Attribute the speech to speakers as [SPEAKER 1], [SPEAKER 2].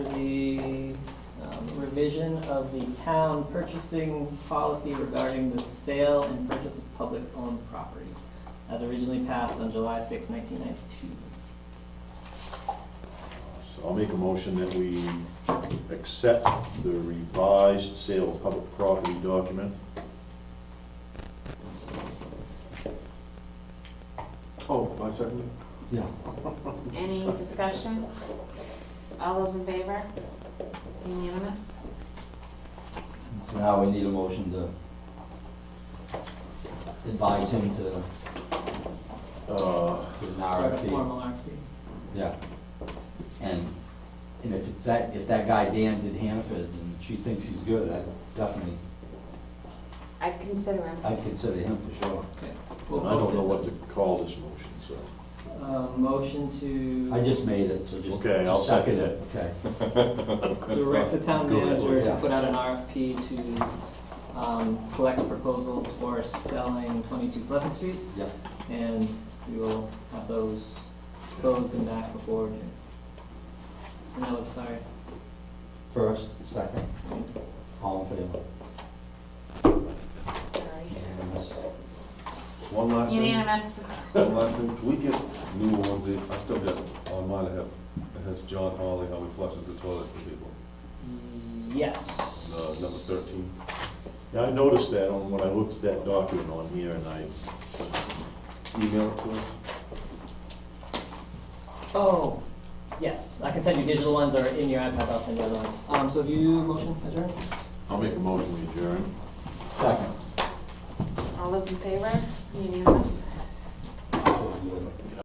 [SPEAKER 1] um, revision of the town purchasing policy regarding the sale and purchase of public-owned property, as originally passed on July 6, 1992.
[SPEAKER 2] So I'll make a motion that we accept the revised sale of public property document.
[SPEAKER 3] Oh, I second
[SPEAKER 4] Yeah.
[SPEAKER 5] Any discussion? All those in favor? Unanimous?
[SPEAKER 4] So now we need a motion to advise him to
[SPEAKER 2] Uh,
[SPEAKER 4] put an
[SPEAKER 1] Sort of
[SPEAKER 4] RFP.
[SPEAKER 1] formal RFP.
[SPEAKER 4] Yeah. And, and if it's that, if that guy Dan did Hannaford and she thinks he's good, I definitely,
[SPEAKER 5] I'd consider him.
[SPEAKER 4] I'd consider him for sure.
[SPEAKER 1] Okay. We'll
[SPEAKER 2] And I don't know what
[SPEAKER 1] post
[SPEAKER 2] to
[SPEAKER 1] it.
[SPEAKER 2] call this motion, so.
[SPEAKER 1] Uh, Motion to.
[SPEAKER 4] I just made it, so just.
[SPEAKER 2] Okay, I'll
[SPEAKER 4] just
[SPEAKER 2] second
[SPEAKER 4] Okay.
[SPEAKER 1] direct the town
[SPEAKER 2] Go ahead.
[SPEAKER 1] manager to
[SPEAKER 4] Yeah.
[SPEAKER 1] put out an RFP to um, collect proposals for selling 22 Pleasant Street,
[SPEAKER 4] Yep.
[SPEAKER 1] and we will have those closed and back before June. And that was, sorry,
[SPEAKER 4] First, second, all in favor?
[SPEAKER 5] Sorry.
[SPEAKER 4] Unanimous.
[SPEAKER 3] One last thing,
[SPEAKER 5] Unanimous.
[SPEAKER 3] one last thing, can we get new ones, in? I still got on mine, I have, it has John Hawley, how he flushes the toilet for people,
[SPEAKER 1] yes.
[SPEAKER 3] uh, number thirteen.
[SPEAKER 2] Yeah, I noticed that on, when I looked at that document on here and I,
[SPEAKER 3] Email it to us.
[SPEAKER 1] Oh, yes, I can send you digital ones or in your iPad, I'll send you other ones. Um, So have you motion adjourned?
[SPEAKER 2] I'll make a motion we adjourn.
[SPEAKER 4] Second.
[SPEAKER 5] All those in favor? Unanimous?